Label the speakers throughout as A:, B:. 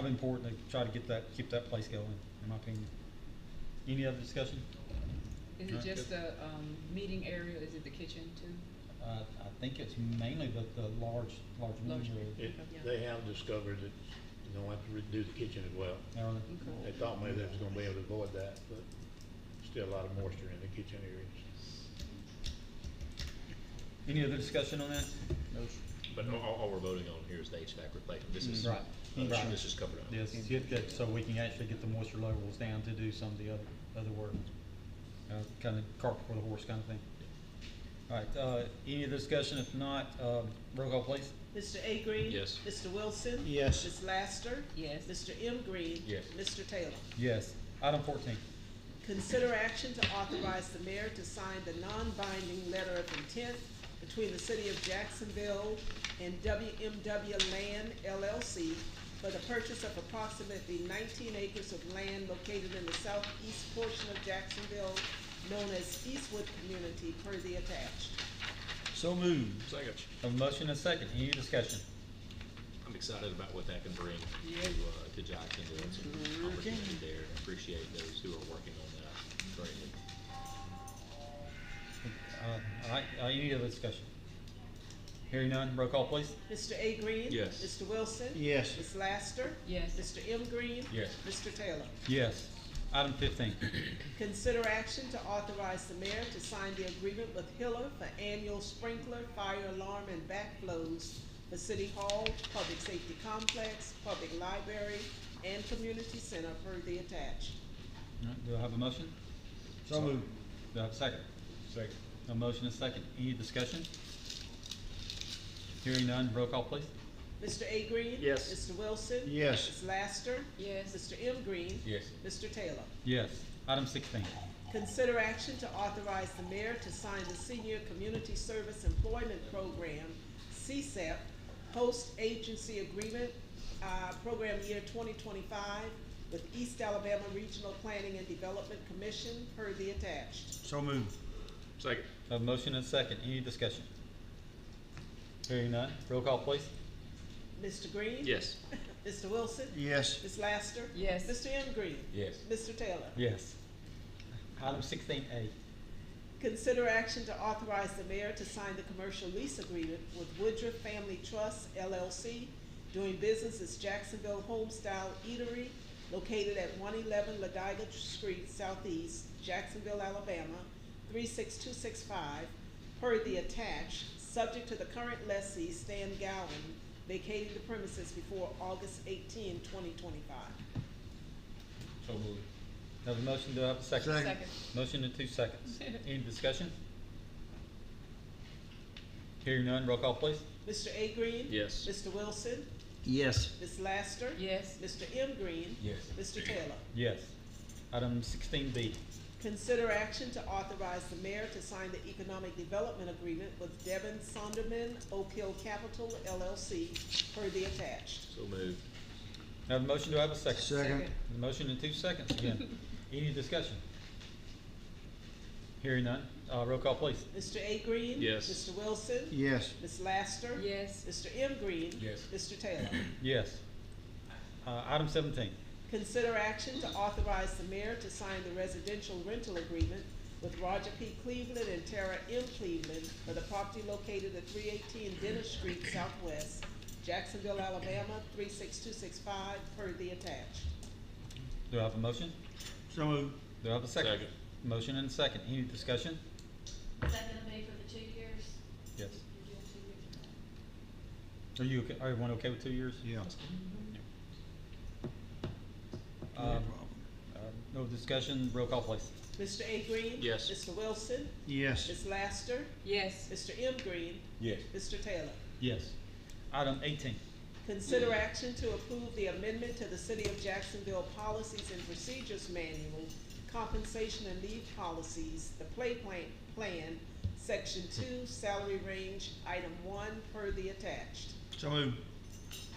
A: It's important to try to get that, keep that place going, in my opinion. Any other discussion?
B: Is
A: Huh?
B: it just the, um, meeting area, is it the kitchen too?
A: Uh, I think it's mainly the, the large, large
B: Large.
A: meeting room.
C: It, they have discovered that you don't have to redo the kitchen as well.
A: Now,
C: They
B: Okay.
C: thought maybe they was gonna be able to avoid that, but still a lot of moisture in the kitchen areas.
A: Any other discussion on that?
D: But all, all we're voting on here is the HVAC replacement. This is, uh,
A: Right. Right.
D: this is covered up.
A: Yes, get that, so we can actually get the moisture levels down to do some of the other, other work. Uh, kind of cart before the horse kind of thing. All right, uh, any other discussion? If not, um, roll call please.
E: Mr. A. Green?
D: Yes.
E: Mr. Wilson?
C: Yes.
E: Ms. Laster?
B: Yes.
E: Mr. M. Green?
D: Yes.
E: Mr. Taylor?
A: Yes. Item fourteen.
E: Consider action to authorize the mayor to sign the non-binding letter of intent between the city of Jacksonville and WMW Land LLC for the purchase of approximately nineteen acres of land located in the southeast portion of Jacksonville, known as Eastwood Community, per the attached.
A: So moved.
D: Second.
A: A motion and a second. Any discussion?
D: I'm excited about what that can bring to,
B: Yeah.
D: uh, to Jacksonville. It's an opportunity there. I Appreciate those who are working on that greatly.
A: Uh, all right, uh, any other discussion? Hearing none, roll call please.
E: Mr. A. Green?
D: Yes.
E: Mr. Wilson?
C: Yes.
E: Ms. Laster?
B: Yes,
E: Mr. M. Green?
D: Yes.
E: Mr. Taylor?
A: Yes. Item fifteen.
E: Consider action to authorize the mayor to sign the agreement with Hiller for annual sprinkler, fire alarm, and backflows for City Hall, Public Safety Complex, Public Library, and Community Center per the attached.
A: All right, Do I have a motion? So moved. Do I have a second?
C: Second.
A: A motion and a second. Any discussion? Hearing none, roll call please.
E: Mr. A. Green?
C: Yes.
E: Mr. Wilson?
C: Yes.
E: Ms. Laster?
B: yes,
E: Mr. M. Green?
D: Yes.
E: Mr. Taylor?
A: Yes. Item sixteen.
E: Consider action to authorize the mayor to sign the Senior Community Service Employment Program, E CSEP, post-agency agreement, uh, program year twenty twenty-five with East Alabama Regional Planning and Development Commission per the attached.
A: So moved.
D: Second.
A: A motion and a second. Any discussion? Hearing none, roll call please.
E: Mr. Green?
D: Yes.
E: Mr. Wilson?
C: Yes.
E: Ms. Laster?
B: Yes.
E: Mr. M. Green?
D: Yes.
E: Mr. Taylor?
A: Yes. Item sixteen A.
E: Consider action to authorize the mayor to sign the commercial lease agreement with Woodruff Family Trust LLC, doing business as Jacksonville Homestyle Eatery, located at one eleven Ladiga Street Southeast, Jacksonville, Alabama, three six two six five, per the attached, subject to the current lessee Stan Gowen vacating the premises before August 18, 2025.
D: So moved.
A: Have a motion, do I have a second?
C: Second.
B: second,
A: Motion in two seconds. Any discussion? Hearing none, roll call please.
E: Mr. A Green?
D: Yes.
E: Mr. Wilson?
F: Yes,
E: Ms. Laster?
B: yes,
E: Mr. M Green?
D: Yes.
E: Mr. Taylor?
A: Yes. Item sixteen B.
E: Consider action to authorize the mayor to sign the economic development agreement with Devin Sonderman, Oak Hill Capital LLC, per the attached.
D: So moved.
A: Have a motion, do I have a second?
B: second,
A: The motion in two seconds again. Any discussion? Hearing none, uh, roll call please.
E: Mr. A. Green?
D: Yes.
E: Mr. Wilson?
C: Yes.
E: Ms. Laster?
B: yes,
E: Mr. M. Green?
D: Yes.
E: Mr. Taylor?
A: Yes. Uh, item seventeen.
E: Consider action to authorize the mayor to sign the residential rental agreement with Roger P. Cleveland and Tara M. Cleveland for the property located at three eighteen Dennis Street Southwest, Jacksonville, Alabama, three six two six five, per the attached.
A: Do I have a motion?
C: So moved.
A: Do I have a second?
D: Second.
A: Motion and a second. Any discussion?
G: Is that gonna be for the two years?
A: Yes.
G: You're doing two years now?
A: Are you, okay- are everyone okay with two years?
C: Yeah.
A: Um, uh, no discussion, roll call please.
E: Mr. A. Green?
D: Yes.
E: Mr. Wilson?
C: Yes.
E: Ms. Laster?
B: yes,
E: Mr. M. Green?
D: Yes.
E: Mr. Taylor?
A: Yes. Item eighteen.
E: Consider action to approve the amendment to the City of Jacksonville Policies and Procedures Manual, Compensation and Leave Policies, the Play Plan, Plan, Section Two, Salary Range, Item One, per the attached.
C: So moved.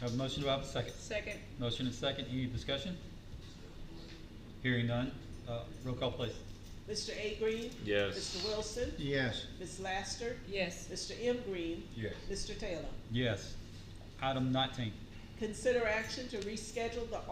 A: Have a motion, do I have a second?
B: second,
A: Motion and second, any discussion? Hearing none, uh, roll call please.
E: Mr. A. Green?
D: Yes.
E: Mr. Wilson?
C: Yes.
E: Ms. Laster?
B: yes,
E: Mr. M. Green?
D: Yes.
E: Mr. Taylor?
A: Yes. Item nineteen,
E: Consider action to reschedule the